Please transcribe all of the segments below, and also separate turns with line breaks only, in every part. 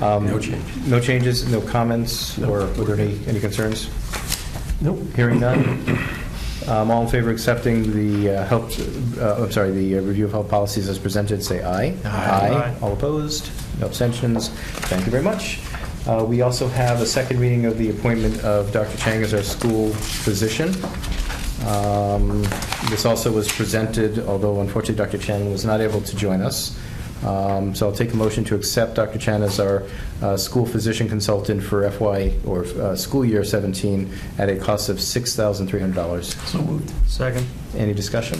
No changes.
Um, No changes, no comments, or were there any, any concerns?
Nope.
Hearing none. Um, All in favor of accepting the uh, health, uh, I'm sorry, the uh, review of health policies as presented, say aye.
Aye.
All opposed? No abstentions? Thank you very much. Uh, We also have a second reading of the appointment of Dr. Chang as our school physician. Um, This also was presented, although unfortunately Dr. Chang was not able to join us. Um, So I'll take a motion to accept Dr. Chan as our uh, school physician consultant for FY, or uh, school year 17, at a cost of $6,300.
So moved.
Second.
Any discussion?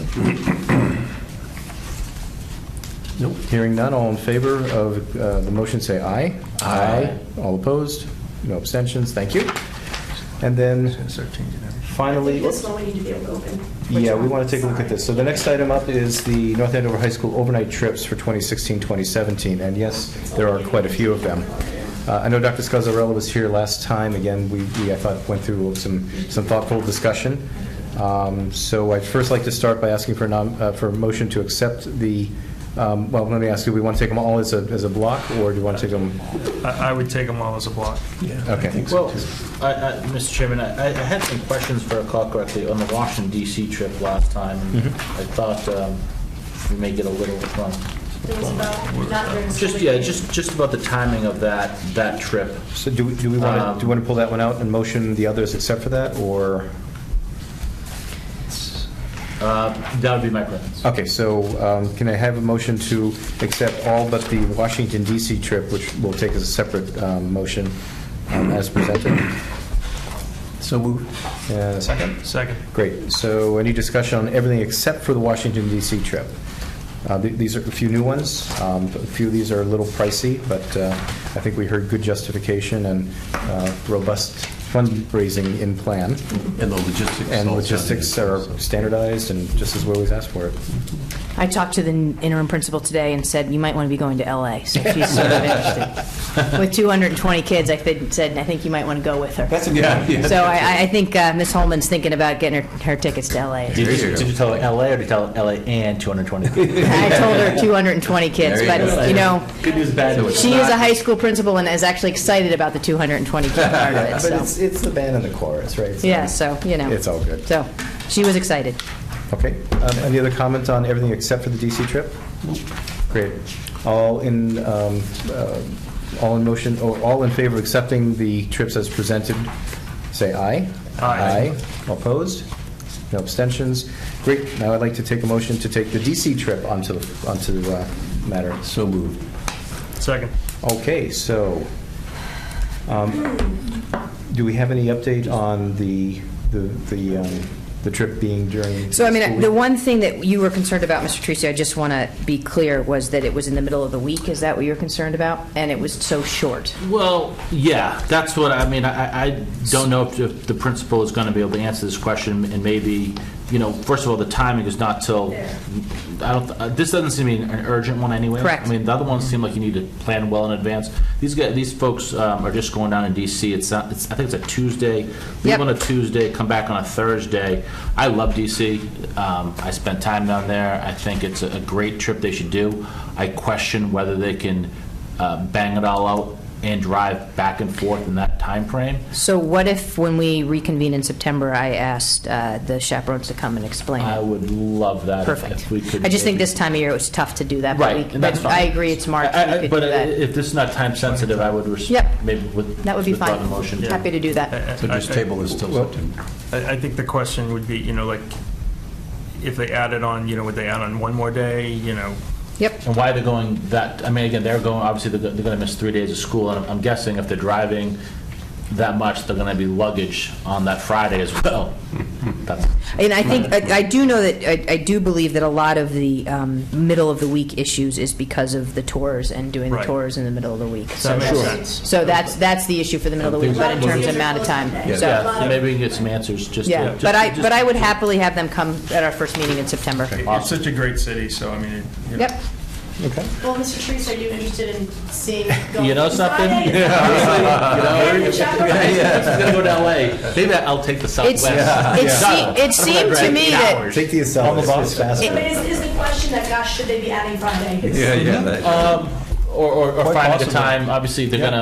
Nope.
Hearing none, all in favor of uh, the motion, say aye.
Aye.
All opposed? No abstentions, thank you. And then
Start changing everything.
finally,
This one we need to be able to open. Which
yeah, we
one?
want to take a look at this. So the next item up is the North Andover High School overnight trips for 2016, 2017, and yes, there are quite a few of them. Uh, I know Dr. Scazzarella was here last time, again, we, we, I thought, went through some, some thoughtful discussion. Um, So I'd first like to start by asking for a nom, uh, for a motion to accept the, um, well, let me ask you, we want to take them all as a, as a block, or do you want to take them?
I, I would take them all as a block.
Yeah.
Okay.
I think so,
Well,
too.
I, I, Mr. Chairman, I, I had some questions for a call correctly on the Washington DC trip last time. I thought, um, we may get a little, um,
It was about, not during school.
just, yeah,
week.
just, just about the timing of that, that trip.
So do we, do we want to, do you want to pull that one out and motion the others except for that, or?
Uh, that would be my preference.
Okay, so um, can I have a motion to accept all but the Washington DC trip, which we'll take as a separate um, motion um, as presented?
So moved.
And a second.
Second.
Great, so any discussion on everything except for the Washington DC trip? Uh, th- These are a few new ones, Um, a few of these are a little pricey, but uh, I think we heard good justification and uh, robust fundraising in plan,
And the logistics.
and
all
logistics are
sounded-
standardized, and just as we always ask for it.
I talked to the interim principal today and said, you might want to be going to LA, so she's sort of interested. With 220 kids, I think- said, I think you might want to go with her.
a good idea.
So I- I, I think uh, Ms. Holman's thinking about getting her, her tickets to LA.
Did you, did you tell LA or did you tell LA and 220?
I told her 220 kids, but, you know,
Good news, bad news.
she is a high school principal and is actually excited about the 220 kid part of it,
But it's,
so.
it's the band and the chorus, right? So-
Yeah, so, you know.
It's all good.
So, she was excited.
Okay. Um, Any other comments on everything except for the DC trip? Great. All in, um, uh, all in motion, or all in favor of accepting the trips as presented, say aye.
Aye.
All Opposed? No abstentions? Great. Now I'd like to take a motion to take the DC trip onto, the onto the uh, matter.
So moved.
Second.
Okay, so, um, do we have any update on the, the, the um, the trip being during?
So, I mean,
school
the
week?
one thing that you were concerned about, Mr. Tracy, I just want to be clear, was that it was in the middle of the week. Is that what you were concerned about? And it was so short.
Well, yeah, that's what, I mean, I, I don't know if- if the principal is going to be able to answer this question, and maybe, you know, first of all, the timing is not till, I don't, uh, this doesn't seem to be an urgent one anyway.
Correct.
I mean, the other ones seem like you need to plan well in advance. These guys, these folks um, are just going down in DC, it's, not- it's, I think it's a Tuesday, leave
Yep.
on a Tuesday, come back on a Thursday. I love DC, um, I spent time down there, I think it's a a great trip they should do. I question whether they can uh, bang it all out and drive back and forth in that time frame.
So what if, when we reconvene in September, I asked uh, the chaperones to come and explain
I
it?
would love that. if-
Perfect.
If we could.
I just think
maybe-
this time of year, it was tough to do that. but we-
Right, and that's
but
fine.
I agree, it's March,
I- I-
we could do
But
that.
if this is not time sensitive, I would, res-
Yep.
maybe with.
That would be
withdraw
fine.
the motion. Uh,
Happy to do that.
So just table this till
Well-
September.
I, I think the question would be, you know, like, if they added on, you know, would they add on one more day, you know?
Yep.
And why they're going that, I mean, again, they're going, obviously, they're going to miss three days of school, and I'm- I'm guessing if they're driving that much, they're going to be luggage on that Friday as well. That's,
And I think, I I do know that, I- I do believe that a lot of the um, middle of the week issues is because of the tours and doing the
Right.
tours in the middle of the week. So
That makes
that's-
sense.
So that's, that's the issue for the middle of the week, but in terms of amount of time, so,
yeah, so maybe we can get some answers, just.
yeah.
just-
But I,
just-
but I would happily have them come at our first meeting in September.
It's such a great city, so I mean, it- you know.
Yep,
Okay.
Well, Mr. Trees, are you interested in seeing?
You
going
know
to
something?
Friday?
You
And
know,
the chaperone?
I'm gonna go to LA. Maybe I'll take the
it's,
Southwest.
it
Shuttle.
seemed, it seemed to me that,
Take the Acela, it's faster.
But is, is the question that, gosh, should they be adding Friday?
Yeah, yeah. that-
Um, or, or, or
Quite
find the
possibly.
time, obviously, they're
Yeah.
gonna